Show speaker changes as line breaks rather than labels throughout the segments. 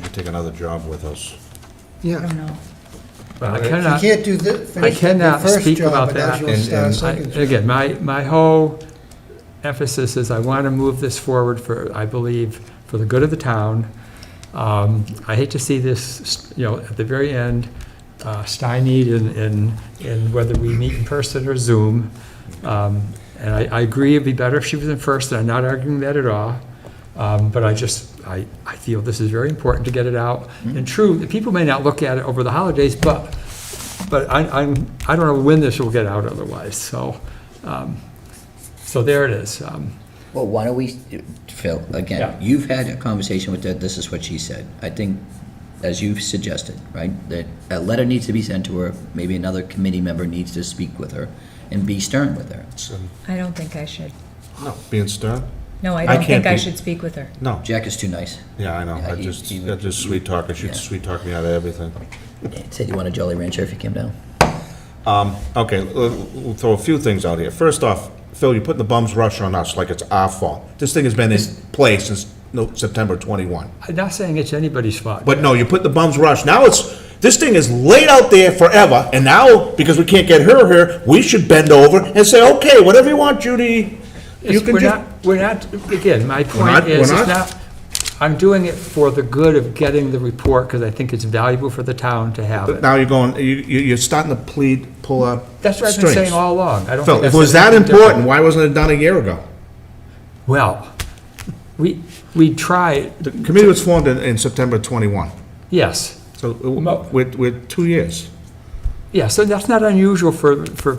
take another job with us.
Yeah.
I don't know.
Well, I
You
cannot,
can't do the,
I
finish the
cannot
first
speak
job
about
without
that.
you'll
and-
start a
and
second
I-
job.
Again, my, my whole emphasis is I want to move this forward for, I believe, for the good of the town. Um, I hate to see this, you know, at the very end, uh, stymied in, in, in whether we meet in person or Zoom. Um, And I, I agree it'd be better if she was in first, and I'm not arguing that at all. Um, But I just, I, I feel this is very important to get it out.
Mm-hmm.
And true, people may not look at it over the holidays, but but I, I'm, I don't know when this will get out otherwise, so, um, so there it is. Um,
Well, why don't we, Phil,
Yeah.
again, you've had a conversation with her, this is what she said. I think, as you've suggested, right, that a letter needs to be sent to her, maybe another committee member needs to speak with her and be stern with her.
I don't think I should.
No, being stern?
No, I
I
don't think
can't
I
be-
should speak with her.
No.
Jack is too nice.
Yeah, I know.
Yeah,
I
he-
just,
he
I
would-
just sweet talk, I should
Yeah.
sweet talk me out of everything.
Said you want a Jolly Rancher if you came down.
Um, okay, l- l- we'll throw a few things out here. First off, Phil, you're putting the bum's rush on us like it's our fault. This thing has been in place since no, September 21.
I'm not saying it's anybody's fault.
But no, you put the bum's rush. Now it's, this thing is laid out there forever, and now, because we can't get her here, we should bend over and say, okay, whatever you want, Judy, you
It's-
can
We're
just.
not, we're not, again, my
not-
point
we're
is,
not-
it's not, I'm doing it for the good of getting the report, because I think it's valuable for the town to have
But
it.
now you're going, you, you- you're starting to plead, pull up
That's what I've been
strings.
saying all along. I don't think
Phil, if
I've
it was
said
that
anything different.
important, why wasn't it done a year ago?
Well, we, we tried,
The committee was formed in, in September 21,
yes.
so
Mo-
we're, we're two years.
Yeah, so that's not unusual for, for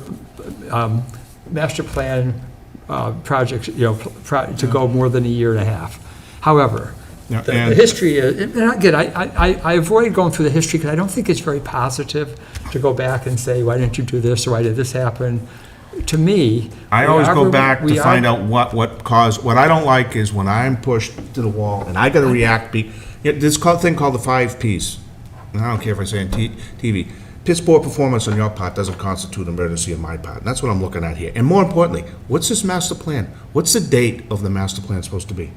um, master plan uh, projects, you know, pro- to go more than a year and a half. However,
Yeah,
the the
and-
history, is- and again, I, I- I avoid going through the history because I don't think it's very positive to go back and say, why didn't you do this, or why did this happen? To me.
I
we
always
are
go
rem-
back
we
to
are-
find out what, what caused, what I don't like is when I'm pushed to the wall and I gotta react, be, yeah, this call, thing called the five Ps. And I don't care if I say it on T- TV, piss poor performance on your part doesn't constitute an emergency on my part, and that's what I'm looking at here. And more importantly, what's this master plan? What's the date of the master plan supposed to be?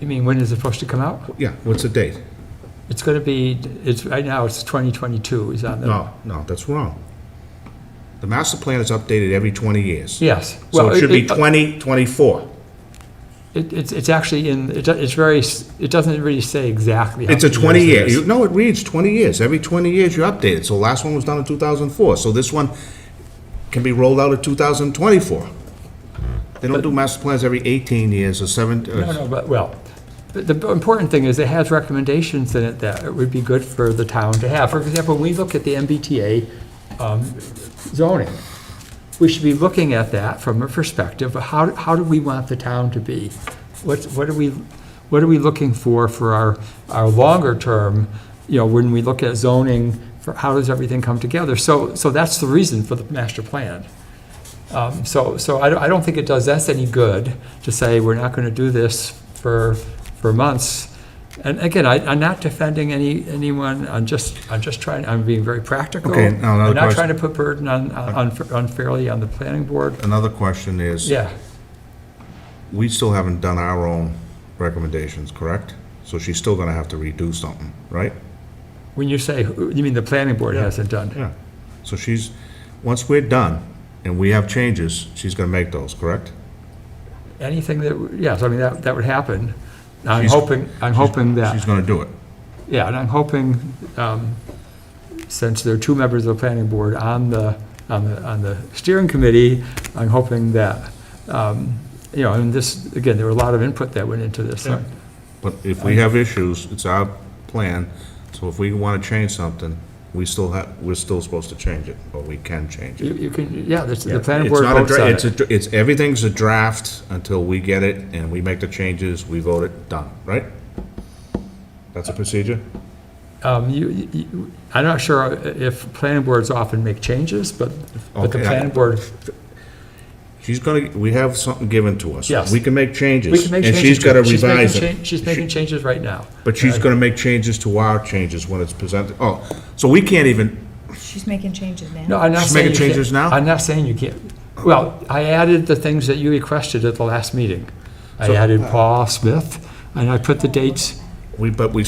You mean, when is it supposed to come out?
Yeah, what's the date?
It's going to be, it's, right now, it's 2022 is on the.
No, no, that's wrong. The master plan is updated every twenty years.
Yes.
So
Well, uh,
it should be twenty twenty-four.
It, it's, it's actually in, it do- it's very, s- it doesn't really say exactly. how
It's a
many
20
years
year,
it
you-
is.
no, it reads 20 years. Every 20 years you update it. So last one was done in 2004, so this one can be rolled out in 2024. They don't do master plans every 18 years or seven, uh,
No, no, but, well, but the important thing is it has recommendations in it that it would be good for the town to have. For example, when we look at the MBTA um, zoning, we should be looking at that from a perspective of how, how do we want the town to be? What, what are we, what are we looking for for our, our longer term, you know, when we look at zoning, for how does everything come together? So, so that's the reason for the master plan. Um, So, so I don't, I don't think it does us any good to say, we're not going to do this for, for months. And again, I, I'm not defending any, anyone, I'm just, I'm just trying, I'm being very practical.
Okay, now another
I'm not
question.
trying to put burden on, on- unfairly on the planning board.
Another question is,
Yeah,
we still haven't done our own recommendations, correct? So she's still gonna have to redo something, right?
when you say, who- you mean the planning board hasn't done?
Yeah. So she's, once we're done and we have changes, she's gonna make those, correct?
Anything that, yes, I mean, that, that would happen. I'm
She's-
hoping, I'm hoping that.
She's gonna do it.
Yeah, and I'm hoping, um, since there are two members of the planning board on the, on the, on the steering committee, I'm hoping that, um, you know, and this, again, there were a lot of input that went into this.
Yeah. But if we have issues, it's our plan, so if we want to change something, we still have, we're still supposed to change it, or we can change it.
You you can, yeah, this- the planning
It's
board
not a,
votes
dra-
on
it's,
it.
a dr- it's, everything's a draft until we get it, and we make the changes, we vote it, done, right? That's a procedure?
Um, you- you- you- I'm not sure if planning boards often make changes, but, but the
Okay, I-
planning board,
She's gonna, we have something given to us.
Yes.
We can make changes.
we can make changes.
And she's gotta
to it. She's making
revise
cha-
it.
She's making changes right now.
But she's gonna make changes to our changes when it's presented. Oh, so we can't even,
She's making changes now.
No, I'm not
She's
saying.
making
you can't-
changes now?
I'm not saying you can't. Well, I added the things that you requested
uh,
at the last meeting. I added Paul Smith, and I put the dates.
we, but we